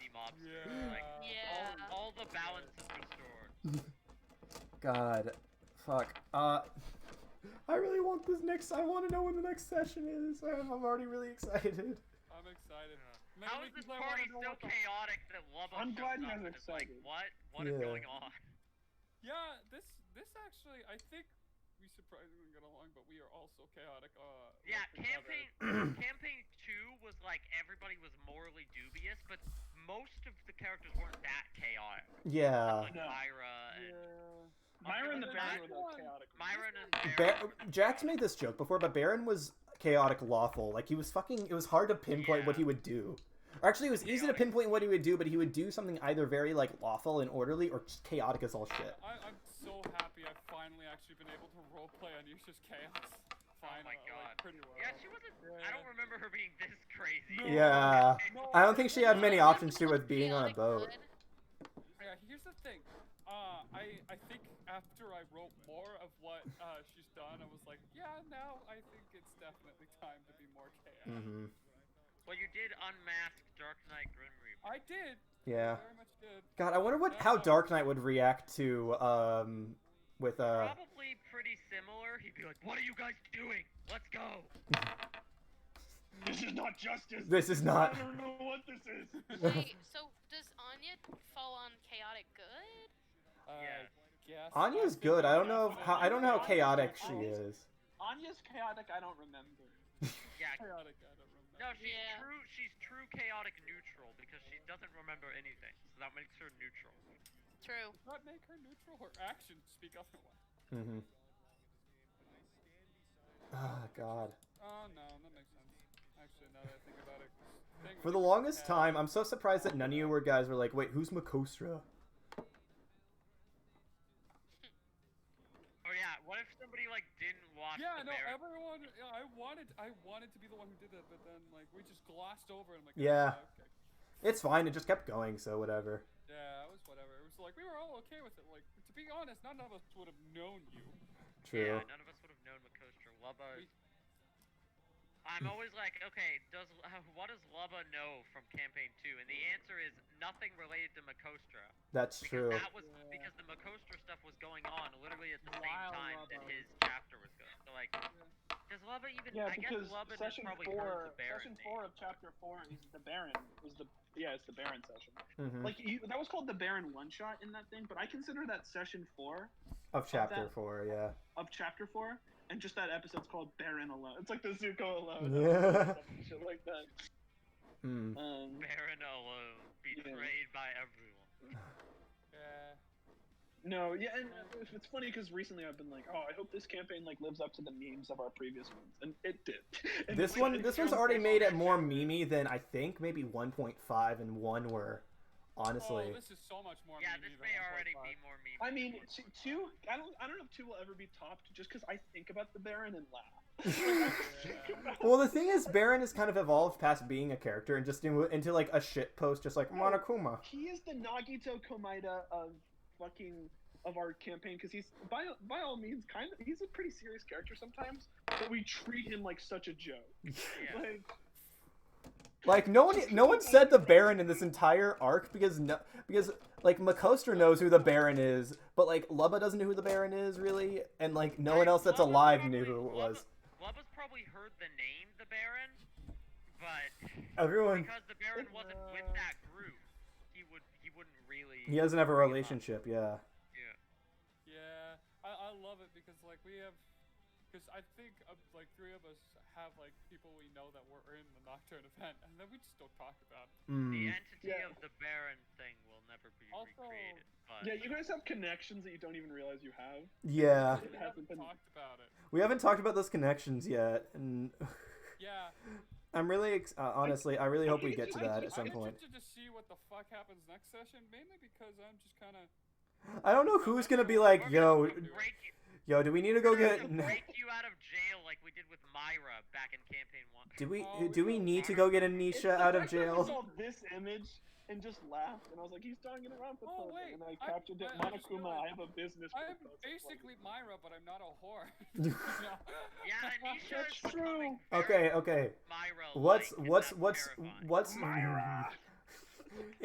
Yeah. Yeah. All, all the balance is restored. God, fuck. Uh, I really want this next. I want to know when the next session is. I'm, I'm already really excited. I'm excited. Maybe How is we can this play party one so on one. chaotic that Lubbo I'm shows glad you up guys are and is like, excited. what? What is Yeah. going on? Yeah, this this actually, I think we surprisingly got along, but we are also chaotic. Uh, with Yeah, each other. campaign campaign two was like everybody was morally dubious, but most of the characters weren't that chaotic. Yeah. Like No. Myra and Yeah. Myra and the Myra- Baron were Myra- the chaotic. Myron and Baron. Bar- Jack's made this joke before, but Baron was chaotic lawful. Like he was fucking. It was hard to pinpoint what he would do. Or actually, it was easy to Chaotic. pinpoint what he would do, but he would do something either very like lawful and orderly, or just chaotic as all shit. I, I'm so happy I've finally actually been able to roleplay Anisha's Chaos. Finally, like, Oh God. pretty well. Yeah, she wasn't. I don't remember her being this crazy. No. Yeah. No, I don't think she had many Yeah, options too with that's being on a chaotic boat. good. Yeah, here's the thing. Uh, I I think after I wrote more of what uh, she's done, I was like, yeah, now I think it's definitely time to be more chaotic. hmm Well, you did unmask Dark Knight Grim Reaper. I did. Yeah. I very much did. God, I wonder what how Dark Knight would react to um with uh Probably pretty similar. He'd be like, "What are you guys doing? Let's go." This is not justice. This is not- I don't know what this is. Wait, so does Anya fall on chaotic good? I Uh, guess Anya's I think good. I don't know that's if, how, I don't know how it. chaotic she is. Anya's chaotic. I don't remember. Yeah. Chaotic, I don't remember. No, she's Yeah. true. She's true chaotic neutral because she doesn't remember anything, so that makes her neutral. True. Not make her neutral. Her actions speak otherwise. Mm-hmm. Oh God. Oh no, that makes sense. Actually, now that I think about it, 'cause thing For the was- longest yeah. time, I'm so surprised that none of you were guys were like, wait, who's Makostra? Oh yeah. What if somebody like didn't watch? Yeah, the no, Baron? everyone. yeah, I wanted, I wanted to be the one who did that, but then like we just glossed over. it. I'm like, oh, Yeah. okay. It's fine. It just kept going, so whatever. yeah, it was whatever. It was like we were all okay with it. Like to be honest, none of us would have known you. True. Yeah, none of us would have known Makostra. Lubba. I'm always like, okay, does what does Lubba know from campaign two? And the answer is nothing related to Makostra. That's Because true. that was Yeah. because the Makostra stuff was going on literally at the same While time that Lubba- his chapter was going. So like, does Lubba even? Yeah, I guess because Lubba just session probably heard four, the Baron session name. four of chapter four is the Baron. Is the yeah, it's the Baron session. hmm Like you, that was called the Baron one shot in that thing, but I consider that session four Of chapter that- four, yeah. of chapter four, and just that episode's called Baron alone. It's like the Zuko alone, Yeah. shit like that. Mm. Um, Baron alone, betrayed by everyone. Yeah. no, yeah, and it's- it's funny because recently I've been like, oh, I hope this campaign like lives up to the memes of our previous ones, and it did. And This it's one, like- this one's already made it more memey than I think maybe 1.5 and one were. Oh, Honestly, this is so much more. Yeah, meaty this than may already 1.5. be more meme. I mean, t- two. I don't. I don't know if two will ever be topped, just because I think about the Baron and laugh. well, the thing is, Baron has kind of evolved past being a character and just into, into like a shit post, just like Monokuma. he is the Nagito Komida of fucking of our campaign because he's by by all means kind of he's a pretty serious character sometimes, but we treat him like such a joke. Yeah. Like, Like no one, no one said the Baron in this entire arc because no, because like Makostra knows who the Baron is, but like Lubba doesn't know who the Baron is really, and like no one else that's Lubba alive probably- knew who it was. Lubba- Lubba's probably heard the name the Baron, but Everyone, because the Baron wasn't with that group, he would he wouldn't really. he doesn't have a relationship. Yeah, Yeah. Yeah, I, I love it because like we have, because I think uh, like three of us have like people we know that were in the Nocturne event, and then we just don't talk about it. The mm. entity of Yeah. the Baron thing will never be Also- recreated. But yeah, you guys have connections that you don't even realize you have. yeah. We It haven't hasn't been- talked about it. We haven't talked about those connections yet, and Yeah. I'm really ex- uh, honestly, I really hope we get to that I'm at some point. interested to see what the fuck happens next session, mainly because I'm just kind of. I don't know who's gonna be like, yo, break, yo, do we need to go we're get? gonna break you out of jail like we did with Myra back in campaign one. Do we do we need to go get It's Anisha the out of fact that I jail? saw this image and just laughed, and I was like, he's talking around for Oh, something, wait, and I I- captured it. I- I just Monokuma, I have a business. I'm proposal for you." basically Myra, but I'm not a whore. Yeah, Anisha That's is becoming very Okay, okay. Myra. Oh What's what's what's what's